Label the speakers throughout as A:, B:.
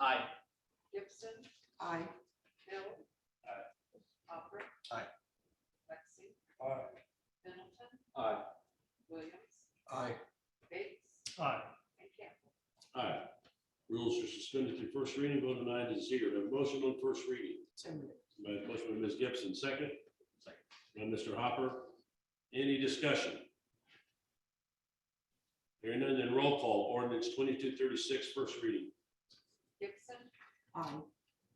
A: Aye.
B: Gibson,
C: Aye.
B: Hill.
A: Aye.
B: Hopper.
D: Aye.
B: Lexi,
A: Aye.
B: Middleton,
A: Aye.
B: Williams,
D: Aye.
B: Bates,
A: Aye.
B: and Campbell.
E: Aye. Rules are suspended through first reading, vote of nine to zero. Do I have a Motion on first reading.
C: So moved.
E: By motion by Ms. Gibson, second.
A: Second.
E: By Mr. Hopper. Any discussion? Hearing none, then roll call. Ordinance twenty-two thirty-six, first reading.
B: Gibson,
C: Aye.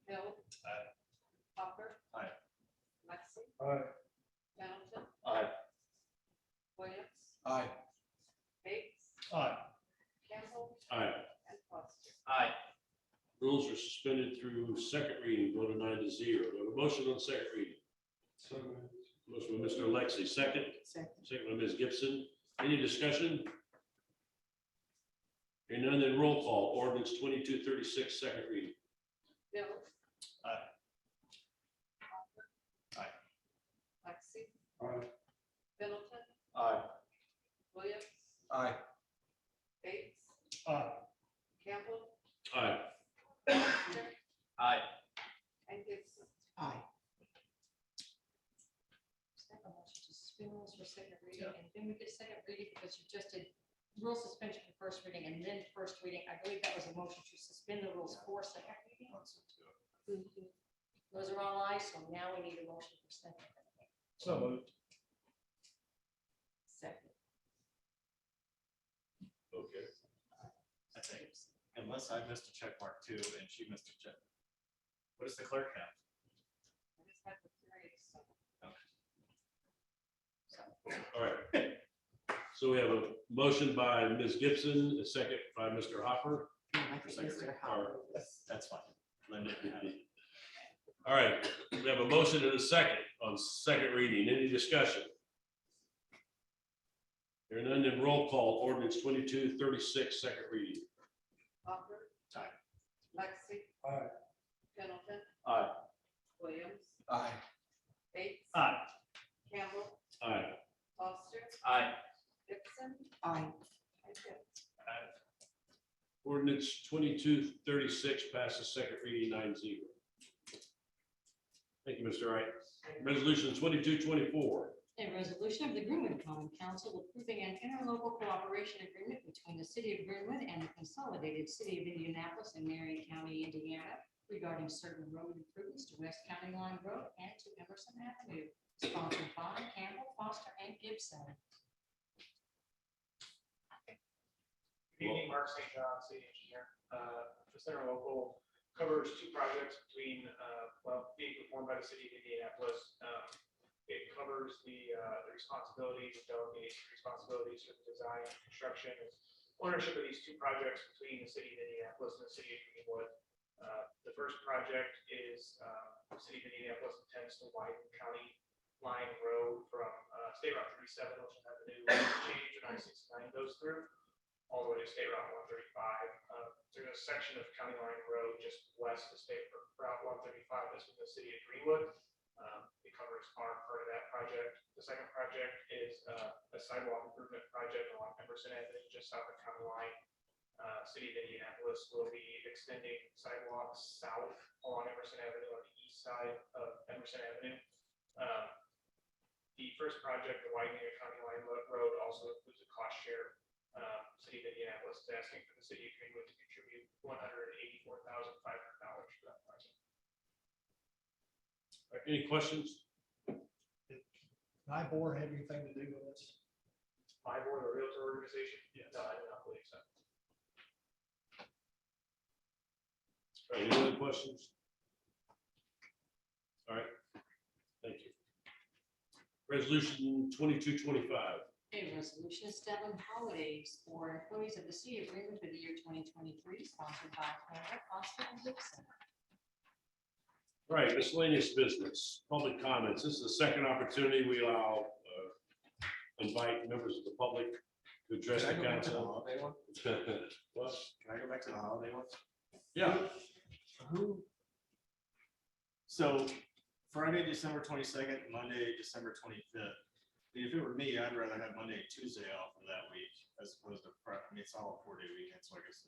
B: Hill.
A: Aye.
B: Hopper.
A: Aye.
B: Lexi,
A: Aye.
B: Middleton,
A: Aye.
B: Williams,
D: Aye.
B: Bates,
A: Aye.
B: Campbell,
E: Aye.
B: and Foster.
A: Aye.
E: Rules are suspended through second reading, vote of nine to zero. Do I have a motion on second reading.
A: So moved.
E: Motion by Mr. Lexi, second.
C: Second.
E: Second by Ms. Gibson. Any discussion? Hearing none, then roll call. Ordinance twenty-two thirty-six, second reading.
B: Hill.
A: Aye.
B: Hopper.
A: Aye.
B: Lexi,
A: Aye.
B: Middleton,
A: Aye.
B: Williams,
D: Aye.
B: Bates,
A: Aye.
B: Campbell,
E: Aye.
B: Foster,
A: Aye.
B: and Gibson.
C: Aye.
F: Make a motion to suspend rules for second reading, and then we did second reading because you just did rule suspension for first reading and then first reading. I believe that was a motion to suspend the rules for second reading. Those are all ayes, so now we need a motion for second.
A: So moved.
C: Second.
E: Okay.
A: I think, unless I missed a check mark too, and she missed a check. What does the clerk have?
B: I just have the period, so.
E: All right. So we have a motion by Ms. Gibson, a second by Mr. Hopper.
C: No, I think Mr. Howard.
A: That's fine. Linda had it.
E: All right, we have a motion and a second on second reading. Any discussion? Hearing none, then roll call. Ordinance twenty-two thirty-six, second reading.
B: Hopper.
A: Aye.
B: Lexi.
A: Aye.
B: Pendleton.
E: Aye.
B: Williams.
D: Aye.
B: Bates.
A: Aye.
B: Campbell.
E: Aye.
B: Foster.
A: Aye.
B: Gibson.
C: Aye.
B: And Hill.
E: Ordinance twenty-two thirty-six passes second reading nine zero. Thank you, Mr. Wright. Resolution twenty-two twenty-four.
F: A resolution of the Greenwood Common Council approving an interlocal cooperation agreement between the city of Greenwood and the consolidated city of Indianapolis and Marion County, Indiana regarding certain road improvements to West County Line Road and to Emerson Avenue, sponsored by Campbell Foster and Gibson.
G: Good evening, Mark St. John, city engineer. Uh, This interlocal covers two projects between, uh, well, being performed by the city of Indianapolis. Um, It covers the uh, the responsibilities, delegates responsibilities for the design and construction, and ownership of these two projects between the city of Indianapolis and the city of Greenwood. Uh, The first project is, uh, the city of Indianapolis intends to widen county line road from uh, State Route 37, which is that new change in I-69 goes through all the way to State Route one thirty-five. Uh, There's a section of County Line Road just west of State Route one thirty-five, that's in the city of Greenwood. Um, It covers our part of that project. The second project is uh, a sidewalk improvement project along Emerson Avenue, just south of County Line. Uh, City of Indianapolis will be extending sidewalks south along Emerson Avenue on the east side of Emerson Avenue. Um, The first project, the widening of County Line Lo- Road, also includes a cost share um, City of Indianapolis is asking for the city of Greenwood to contribute one hundred and eighty-four thousand five hundred dollars for that project.
E: Any questions?
H: My board have anything to do with this?
G: My board, a realtor organization? No, I do not believe so.
E: Any other questions? All right. Thank you. Resolution twenty-two twenty-five.
F: A resolution establishing holidays for employees of the city of Greenwood for the year twenty twenty-three, sponsored by Campbell Foster and Gibson.
E: All right, miscellaneous business, public comments. This is the second opportunity we allow, uh, invite members of the public to address the
D: Can I go back to the
E: council.
D: holiday one?
E: What?
D: Can I go back to the holiday one?
E: Yeah.
D: Who? So Friday, December twenty-second, Monday, December twenty-fifth. If it were me, I'd rather have Monday, and Tuesday off of that week as opposed to, Fri- I mean, it's all a four-day weekend, so I guess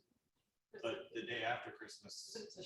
D: but the day after Christmas.
F: It's a